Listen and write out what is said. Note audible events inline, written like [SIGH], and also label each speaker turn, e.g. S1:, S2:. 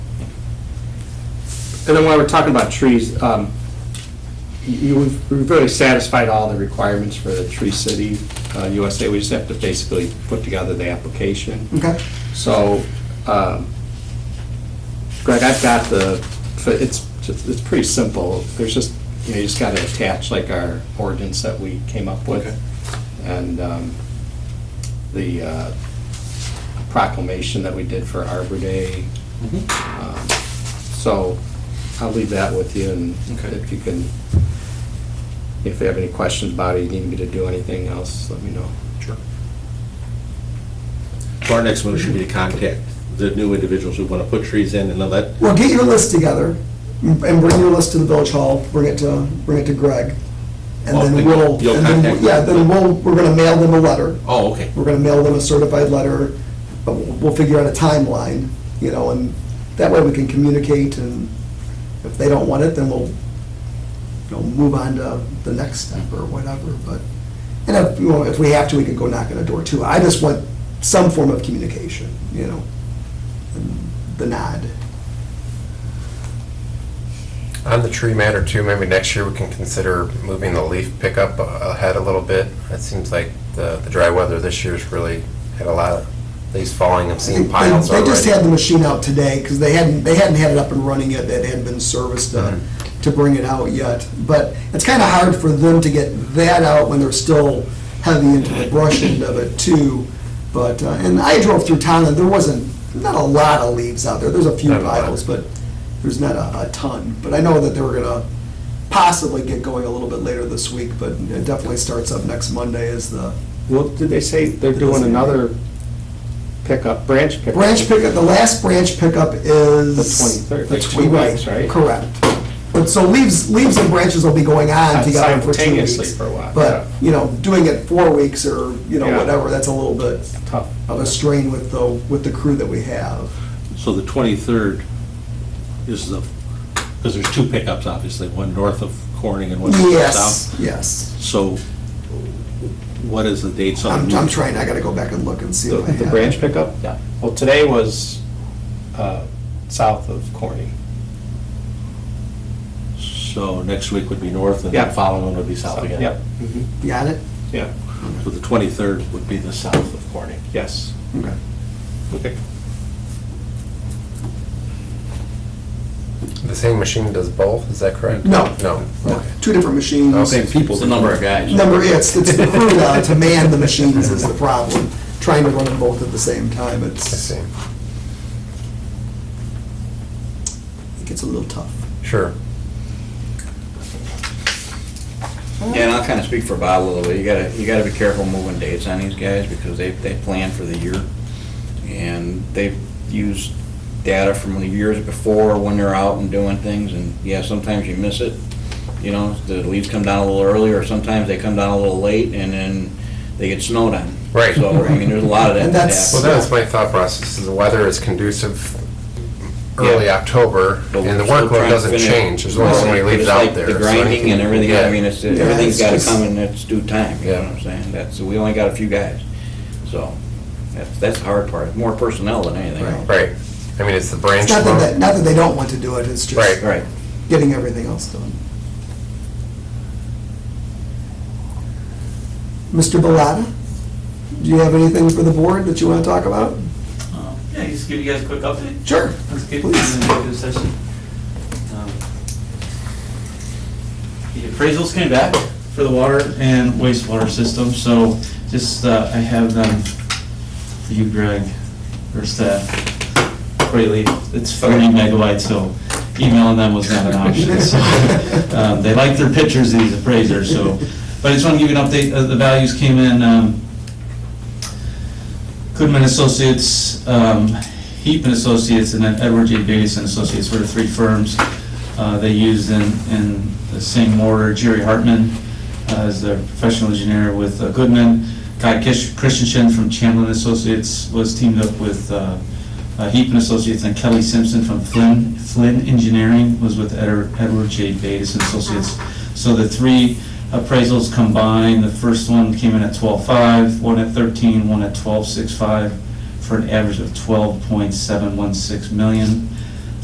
S1: And then while we're talking about trees, um, you, we've we've really satisfied all the requirements for the Tree City uh, USA. We just have to basically put together the application.
S2: Okay.
S1: So, um, Greg, I've got the, it's, just- it's pretty simple. There's just, you know, you just got to attach like our ordinance that we came up with.
S2: Okay.
S1: And um, the uh, proclamation that we did for Arbor Day.
S3: Mm-hmm.
S1: Um, So I'll leave that with you and
S2: Okay.
S1: if you can, if you have any questions about it, you need me to do anything else, let me know.
S2: Sure.
S3: So our next move should be to contact the new individuals who want to put trees in and let,
S2: Well, get your list together and bring your list to the village hall, bring it to, bring it to Greg. And
S3: Well,
S2: then
S3: then
S2: we'll,
S3: you'll
S2: and then-
S3: contact
S2: yeah, then
S3: them.
S2: we'll, we're gonna mail them a letter.
S3: oh, okay.
S2: We're gonna mail them a certified letter, but we'll we'll figure out a timeline, you know, and that way we can communicate and if they don't want it, then we'll, you know, move on to the next step or whatever, but, and if, you know, if we have to, we can go knock on a door too. I just want some form of communication, you know, and the nod.
S4: On the tree matter too, maybe next year we can consider moving the leaf pickup uh, ahead a little bit. It seems like the, the dry weather this year's really had a lot of leaves falling. I'm seeing
S2: They-
S4: piles
S2: They just had
S4: already.
S2: the machine out today, because they hadn't, they hadn't had it up and running yet, that hadn't been serviced to,
S4: Mm-hmm.
S2: to bring it out yet. But it's kind of hard for them to get that out when they're still heavy into the brush end of it too. But, uh, and I drove through town, and there wasn't, not a lot of leaves out there, there's a few
S4: Not a lot.
S2: piles, but there's not a, a ton. But I know that they were gonna possibly get going a little bit later this week, but it definitely starts up next Monday is the,
S1: Well, did they say they're doing another pickup, branch pickup?
S2: Branch pickup, the last branch pickup is.
S1: The 23rd,
S2: the
S1: like two
S2: 20
S1: weeks, right?
S2: Correct. But so leaves, leaves and branches will be going on together for two weeks.
S1: Simultaneously for a while,
S2: But,
S1: yeah.
S2: you know, doing it four weeks or, you know,
S1: Yeah.
S2: whatever, that's a little bit
S1: Tough.
S2: of a strain with the, with the crew that we have.
S3: So the 23rd is the, because there's two pickups, obviously, one north of Corning and one south.
S2: Yes, yes.
S3: So what is the date on?
S2: I'm, I'm trying, I gotta go back and look and see
S1: The,
S2: what
S1: [LAUGHS]
S2: I
S1: the
S2: have.
S1: branch pickup? Yeah. Well, today was, uh, south of Corning.
S3: So next week would be north and
S1: Yeah.
S3: the following one would be south again.
S1: Yep,
S2: Got it?
S1: yeah,
S3: So the 23rd would be the south of Corning.
S1: yes.
S2: Okay.
S1: Okay.
S4: The same machine does both, is that correct?
S2: No.
S4: No.
S2: Yeah, Two different machines.
S3: people. The number of guys.
S2: Number, it's, it's the crew now to man the machines is the problem. Trying to run them both at the same time,
S4: I
S2: it's,
S4: see.
S2: it gets a little tough.
S4: Sure.
S5: Yeah, and I'll kind of speak for Bob a little bit. You gotta, you gotta be careful moving dates on these guys because they, they plan for the year. And they've used data from the years before when they're out and doing things and yeah, sometimes you miss it. You know, the leaves come down a little early or sometimes they come down a little late and then they get snowed on.
S4: Right.
S5: So, I mean, there's a lot of that.
S2: And
S5: that
S2: that's-
S4: Well,
S5: happens.
S4: that was my thought process, is the weather is conducive early
S5: Yeah.
S4: October,
S5: But
S4: and the
S5: we're
S4: workload
S5: still trying to
S4: doesn't
S5: finish-
S4: change, there's only so many
S5: But
S4: leaves
S5: it's
S4: out
S5: like
S4: there.
S5: The
S4: so anything
S5: grinding
S4: you
S5: and
S4: can
S5: everything,
S4: get-
S5: I mean, it's,
S2: Yeah,
S5: everything's
S2: it's
S5: gotta
S2: just-
S5: come in its due time, you know
S4: Yeah.
S5: what I'm saying? That's, we only got a few guys, so, that's, that's the hard part, more personnel than anything
S2: Right.
S5: else.
S4: Right, I mean, it's the branch.
S2: It's not that,
S4: load.
S2: they- not that they don't want to do it, it's just
S4: Right.
S5: Right,
S2: getting everything else done. Mr. Balata, do you have anything for the board that you want to talk about?
S6: Uh, Yeah, just give you guys a quick update.
S2: Sure.
S6: Let's get to the
S2: Please.
S6: executive session. Um, The appraisals came back for the water and wastewater system, so just, uh, I have them for you, Greg, or staff, greatly. It's 40 megabytes, so emailing them was not an option. So um, They like their pictures of these appraisers, so, but I just want to give you an update. Uh, The values came in um, Goodman Associates, um, Heap and Associates, and then Edward J. Biggis and Associates were the three firms uh, they used in, in the same order. Jerry Hartman uh, is the professional engineer with uh, Goodman. Guy Kish- Christensen from Chamberlain Associates was teamed up with uh, uh, Heap and Associates, and Kelly Simpson from Flynn, Flynn Engineering was with Eder- Edward J. Biggis and Associates. So the three appraisals combined, the first one came in at twelve-five, one at thirteen, one at twelve-six-five, for an average of twelve point seven one six million.